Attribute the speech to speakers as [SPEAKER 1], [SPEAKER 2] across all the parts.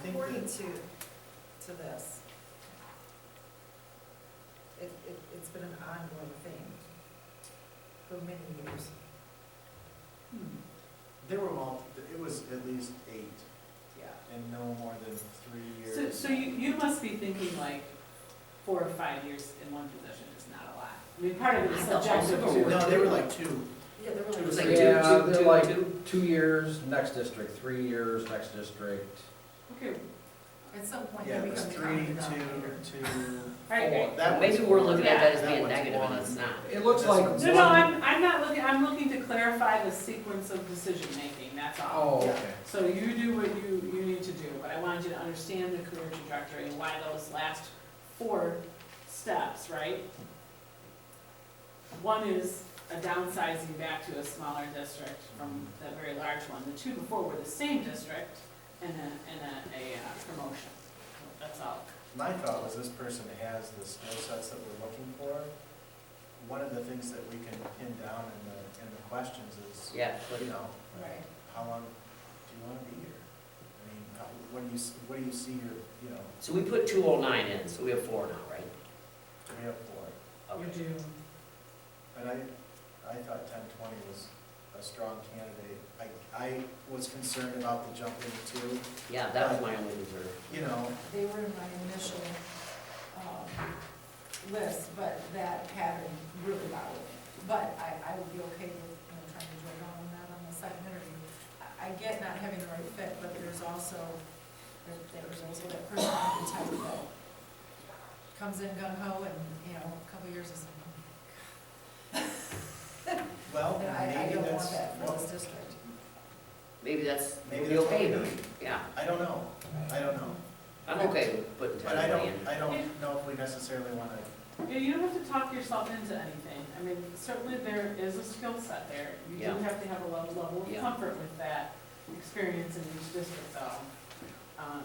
[SPEAKER 1] think
[SPEAKER 2] according
[SPEAKER 1] that-
[SPEAKER 2] to, to this. It, it, it's been an ongoing thing for many years.
[SPEAKER 3] Hmm.
[SPEAKER 1] There were all, it was at least eight
[SPEAKER 2] Yeah.
[SPEAKER 1] and no more than three
[SPEAKER 3] So,
[SPEAKER 1] years.
[SPEAKER 3] so you, you must be thinking like, four or five years in one position is not a lot. I mean, part of it is
[SPEAKER 4] I thought
[SPEAKER 3] subjective
[SPEAKER 4] also
[SPEAKER 3] too.
[SPEAKER 4] were-
[SPEAKER 1] No, they were like two.
[SPEAKER 2] Yeah, there
[SPEAKER 1] It
[SPEAKER 2] were
[SPEAKER 1] was
[SPEAKER 2] like.
[SPEAKER 1] like two,
[SPEAKER 5] Yeah,
[SPEAKER 4] two,
[SPEAKER 5] they're
[SPEAKER 4] two,
[SPEAKER 5] like two years, next district, three years, next district.
[SPEAKER 3] Okay,
[SPEAKER 2] At some point, they
[SPEAKER 1] Yeah, it was
[SPEAKER 2] become
[SPEAKER 1] three,
[SPEAKER 2] common denominator.
[SPEAKER 1] two, two.
[SPEAKER 3] alright,
[SPEAKER 1] four.
[SPEAKER 3] great.
[SPEAKER 1] That
[SPEAKER 4] Maybe
[SPEAKER 1] one's
[SPEAKER 4] we're
[SPEAKER 1] one.
[SPEAKER 4] looking at that as
[SPEAKER 1] That
[SPEAKER 4] being
[SPEAKER 1] one's
[SPEAKER 4] negative and
[SPEAKER 1] one.
[SPEAKER 4] it's not.
[SPEAKER 5] It looks
[SPEAKER 1] That's
[SPEAKER 5] like
[SPEAKER 1] what I'm
[SPEAKER 3] No, no,
[SPEAKER 5] one,
[SPEAKER 3] I'm, I'm not looking, I'm looking to clarify the sequence of decision-making, that's all.
[SPEAKER 5] oh, okay.
[SPEAKER 3] So you do what you, you need to do, but I wanted you to understand the career trajectory and why those last four steps, right? One is a downsizing back to a smaller district from that very large one. The two before were the same district and a, and a, a uh, promotion. That's all.
[SPEAKER 1] My thought was this person has the skill sets that we're looking for. One of the things that we can pin down in the, in the questions is,
[SPEAKER 4] Yeah,
[SPEAKER 1] you
[SPEAKER 4] but
[SPEAKER 1] know,
[SPEAKER 2] Right.
[SPEAKER 1] how long do you want to be here? I mean, how- what do you, s- what do you see your, you know,
[SPEAKER 4] So we put two oh nine in, so we have four now, right?
[SPEAKER 1] do we have four?
[SPEAKER 4] Okay.
[SPEAKER 3] do.
[SPEAKER 1] And I, I thought ten twenty was a strong candidate. I, I was concerned about the jumping to,
[SPEAKER 4] Yeah, that was my only concern.
[SPEAKER 1] you know,
[SPEAKER 2] They were in my initial, um, list, but that pattern really bothered me. But I, I would be okay with, you know, trying to join on that on the second interview. I- I get not having the right fit, but there's also, there- there's also that person on the type that comes in gung ho and, you know, a couple years is,
[SPEAKER 1] well,
[SPEAKER 2] and I, I
[SPEAKER 1] maybe
[SPEAKER 2] don't
[SPEAKER 1] that's,
[SPEAKER 2] want that for
[SPEAKER 1] well,
[SPEAKER 2] this district.
[SPEAKER 4] Maybe that's,
[SPEAKER 1] Maybe
[SPEAKER 4] we'll be
[SPEAKER 1] that's
[SPEAKER 4] okay
[SPEAKER 1] what
[SPEAKER 4] then.
[SPEAKER 1] we
[SPEAKER 4] Yeah,
[SPEAKER 1] I don't know. I don't know.
[SPEAKER 4] I'm okay with putting
[SPEAKER 1] But I
[SPEAKER 4] ten oh
[SPEAKER 1] don't,
[SPEAKER 4] twenty in.
[SPEAKER 1] I don't know if we necessarily want to
[SPEAKER 3] Yeah, you don't have to talk yourself into anything. I mean, certainly there is a skill set there. You do
[SPEAKER 4] Yeah.
[SPEAKER 3] have to have a level, level of
[SPEAKER 4] Yeah.
[SPEAKER 3] comfort with that experience in each district though. Um,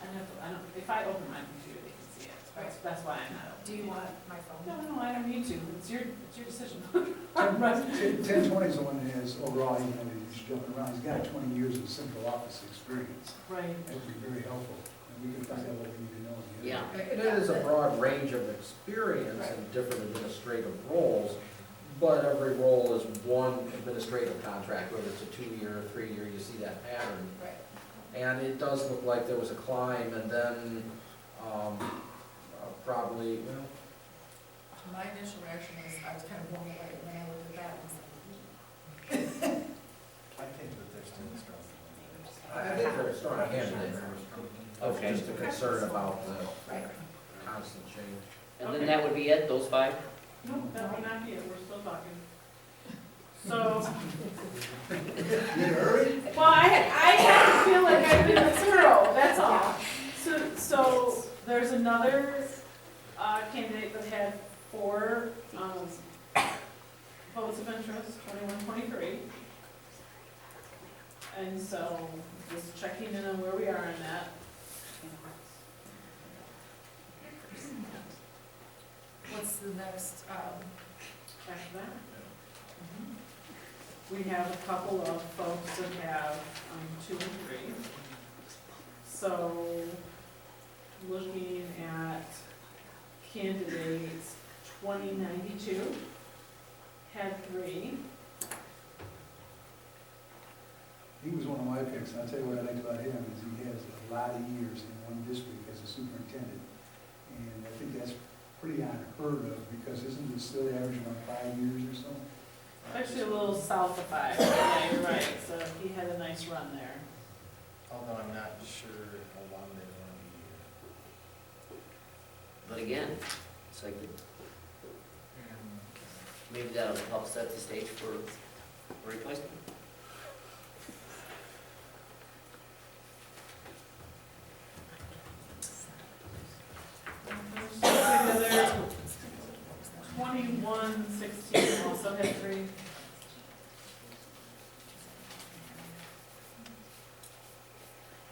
[SPEAKER 3] I don't, I don't, if I open my computer, they can see it. That's, that's why I'm not
[SPEAKER 2] Do
[SPEAKER 3] opening.
[SPEAKER 2] you
[SPEAKER 3] it.
[SPEAKER 2] want my
[SPEAKER 3] No,
[SPEAKER 2] phone?
[SPEAKER 3] no, I don't need to. It's your, it's your decision.
[SPEAKER 6] Ten twenty is the one that has overall, you know, he's jumping around, he's got twenty years of central office experience.
[SPEAKER 3] Right.
[SPEAKER 6] That would be very helpful, and we can find out what we need to know. in the
[SPEAKER 4] Yeah.
[SPEAKER 6] interview.
[SPEAKER 5] And it is a broad range of experience in different administrative roles, but every role is one administrative contract, whether it's a two-year, three-year, you see that pattern.
[SPEAKER 2] Right.
[SPEAKER 5] And it does look like there was a climb and then, um, uh, probably, well,
[SPEAKER 2] My initial reaction is, I was kind of blown away when I looked at that and "Hmm, was like, "Ooh."
[SPEAKER 1] I think that there's still a strong candidate.
[SPEAKER 5] I I think they're a strong candidate. Of
[SPEAKER 4] Okay.
[SPEAKER 5] just a concern about the
[SPEAKER 2] Right.
[SPEAKER 5] constant change.
[SPEAKER 4] And then that would be it, those five?
[SPEAKER 3] No, that would not be it. We're still talking. So,
[SPEAKER 1] You in a hurry?
[SPEAKER 3] well, I, I have to feel like I've been thorough, that's all. So, so there's another uh, candidate that had four um, votes of interest, 21, 23. And so just checking in on where we are on that.
[SPEAKER 2] What's the next, um,
[SPEAKER 3] After that. We have a couple of folks that have um, two and three. So looking at candidates, twenty ninety-two had three.
[SPEAKER 6] He was one of my picks, and I'll tell you what I liked about him, is he has a lot of years in one district as a superintendent. And I think that's pretty unheard of, because isn't it still averaging about five years or so?
[SPEAKER 3] Actually a little south of five, yeah, you're right, so he had a nice run there.
[SPEAKER 1] Although I'm not sure how long they want to be here.
[SPEAKER 4] But again, it's like, maybe that'll help set the stage for a replacement.
[SPEAKER 3] There's twenty-one sixteen also had three.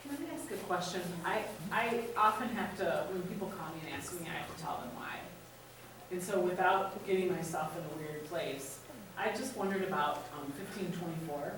[SPEAKER 3] Can I ask a question? I, I often have to, when people call me and ask me, I have to tell them why. And so without getting myself in a weird place, I just wondered about um, fifteen twenty-four.